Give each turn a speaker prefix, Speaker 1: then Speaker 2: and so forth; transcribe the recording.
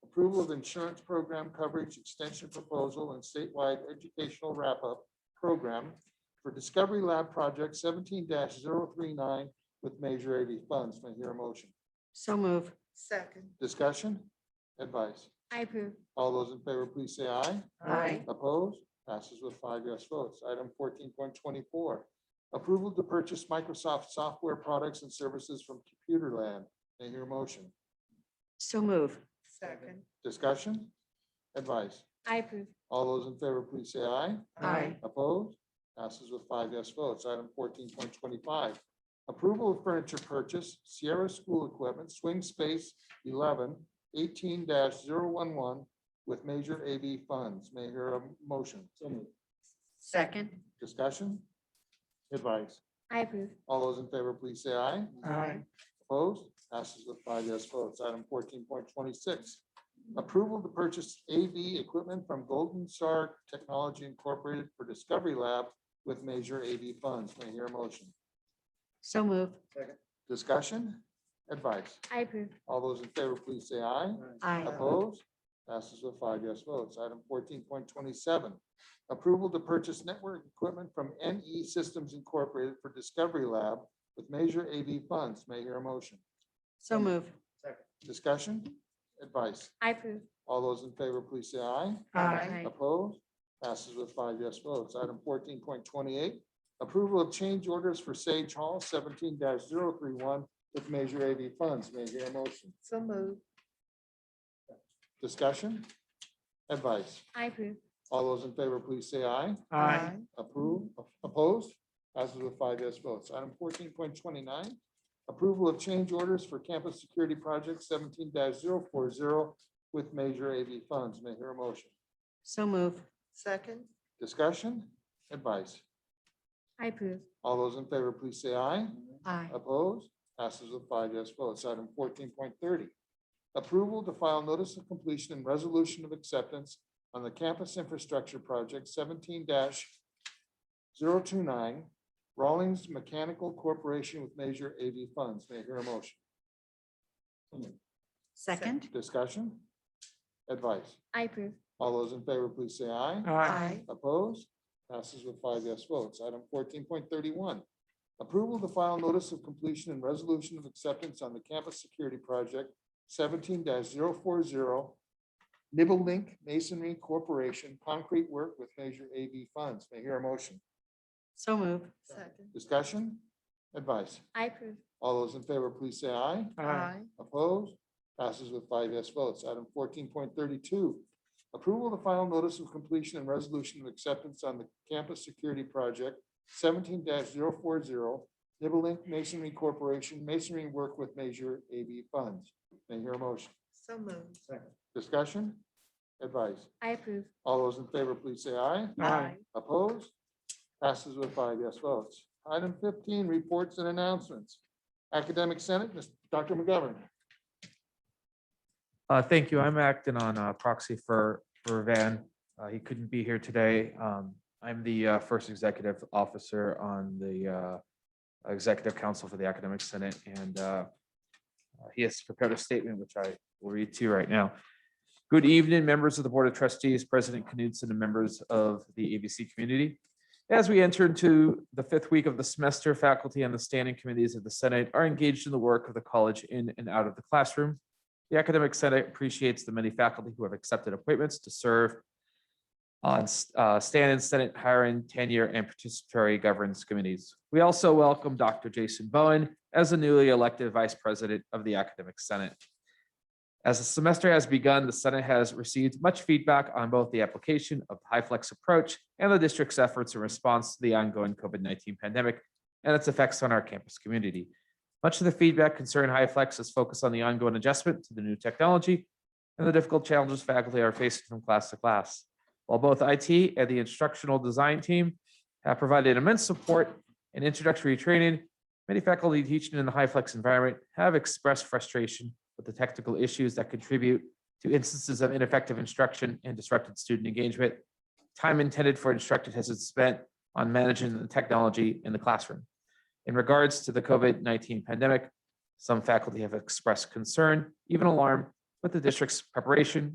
Speaker 1: approval of insurance program coverage extension proposal and statewide educational wrap-up program for Discovery Lab Project seventeen 39 with major AV funds. May I hear a motion?
Speaker 2: So move.
Speaker 3: second,
Speaker 1: Discussion? Advice?
Speaker 4: I approve.
Speaker 1: All those in favor, please say aye.
Speaker 2: Aye.
Speaker 1: Opposed? Passes with five yes votes. Item fourteen point twenty-four. Approval to purchase Microsoft software products and services from Computer Land. May I hear a motion?
Speaker 2: So move.
Speaker 3: second,
Speaker 1: Discussion? Advice?
Speaker 4: I approve.
Speaker 1: All those in favor, please say aye.
Speaker 2: Aye.
Speaker 1: Opposed? Passes with five yes votes. Item fourteen point twenty-five. Approval of furniture purchase, Sierra School Equipment, Swing Space 11 18-011 with major AV funds. May I hear a motion?
Speaker 2: Second.
Speaker 1: Discussion? Advice?
Speaker 4: I approve.
Speaker 1: All those in favor, please say aye.
Speaker 2: Aye.
Speaker 1: Opposed? Passes with five yes votes. Item fourteen point twenty-six. Approval to purchase AV equipment from Golden Star Technology Incorporated for Discovery Lab with major AV funds. May I hear a motion?
Speaker 2: So move.
Speaker 1: Discussion? Advice?
Speaker 4: I approve.
Speaker 1: All those in favor, please say aye.
Speaker 2: Aye.
Speaker 1: Opposed? Passes with five yes votes. Item fourteen point twenty-seven. Approval to purchase network equipment from NE Systems Incorporated for Discovery Lab with major AV funds. May I hear a motion?
Speaker 2: So move.
Speaker 1: Discussion? Advice?
Speaker 4: I approve.
Speaker 1: All those in favor, please say aye.
Speaker 2: Aye.
Speaker 1: Opposed? Passes with five yes votes. Item fourteen point twenty-eight. Approval of change orders for Sage Hall seventeen 31 with major AV funds. May I hear a motion?
Speaker 3: so move,
Speaker 1: Discussion? Advice?
Speaker 4: I approve.
Speaker 1: All those in favor, please say aye.
Speaker 3: aye,
Speaker 1: Approve, opposed, passes with five yes votes. Item fourteen point twenty-nine, approval of change orders for campus security project seventeen 40 with major AV funds. May I hear a motion?
Speaker 2: So move.
Speaker 3: second,
Speaker 1: Discussion, advice.
Speaker 4: I approve.
Speaker 1: All those in favor, please say aye.
Speaker 2: Aye.
Speaker 1: Opposed, passes with five yes votes. Item fourteen point thirty. Approval to file notice of completion and resolution of acceptance on the campus infrastructure project seventeen 29 Rawlings Mechanical Corporation with major AV funds. May I hear a motion?
Speaker 2: Second.
Speaker 1: Discussion? Advice?
Speaker 4: I approve.
Speaker 1: All those in favor, please say aye.
Speaker 3: aye,
Speaker 1: Opposed? Passes with five yes votes. Item fourteen point thirty-one. Approval to file notice of completion and resolution of acceptance on the campus security project seventeen 40 Nibble Link Masonry Corporation Concrete Work with Major AV Funds. May I hear a motion?
Speaker 2: So move.
Speaker 3: second,
Speaker 1: Discussion? Advice?
Speaker 4: I approve.
Speaker 1: All those in favor, please say aye.
Speaker 3: aye,
Speaker 1: Opposed? Passes with five yes votes. Item fourteen point thirty-two. Approval of final notice of completion and resolution of acceptance on the campus security project seventeen 40 Nibble Link Masonry Corporation Masonry Work with Major AV Funds. May I hear a motion?
Speaker 3: so move,
Speaker 1: Discussion? Advice?
Speaker 4: I approve.
Speaker 1: All those in favor, please say aye.
Speaker 3: aye,
Speaker 1: Opposed? Passes with five yes votes. Item fifteen, reports and announcements. Academic Senate, Mr. Dr. McGovern.
Speaker 5: Uh, thank you. I'm acting on uh, proxy for, for Van. Uh, he couldn't be here today. Um, I'm the uh, first executive officer on the uh, Executive Council for the Academic Senate, and uh, uh, he has prepared a statement, which I will read to you right now. Good evening, members of the Board of Trustees, President Knudsen, and members of the ABC community. As we enter into the fifth week of the semester, faculty and the standing committees of the Senate are engaged in the work of the college in and out of the classroom. The Academic Senate appreciates the many faculty who have accepted appointments to serve on uh, stand-in Senate hiring, tenure, and participatory governance committees. We also welcome Dr. Jason Bowen as the newly elected Vice President of the Academic Senate. As the semester has begun, the Senate has received much feedback on both the application of the high-flex approach and the district's efforts in response to the ongoing COVID-19 pandemic and its effects on our campus community. Much of the feedback concerning HiFlex is focused on the ongoing adjustment to the new technology and the difficult challenges faculty are facing from class to class. While both IT and the instructional design team have provided immense support and introductory training, many faculty teaching in the HiFlex environment have expressed frustration with the technical issues that contribute to instances of ineffective instruction and disrupted student engagement. Time intended for instruction has been spent on managing the technology in the classroom. In regards to the COVID-19 pandemic, some faculty have expressed concern, even alarm, with the district's preparation,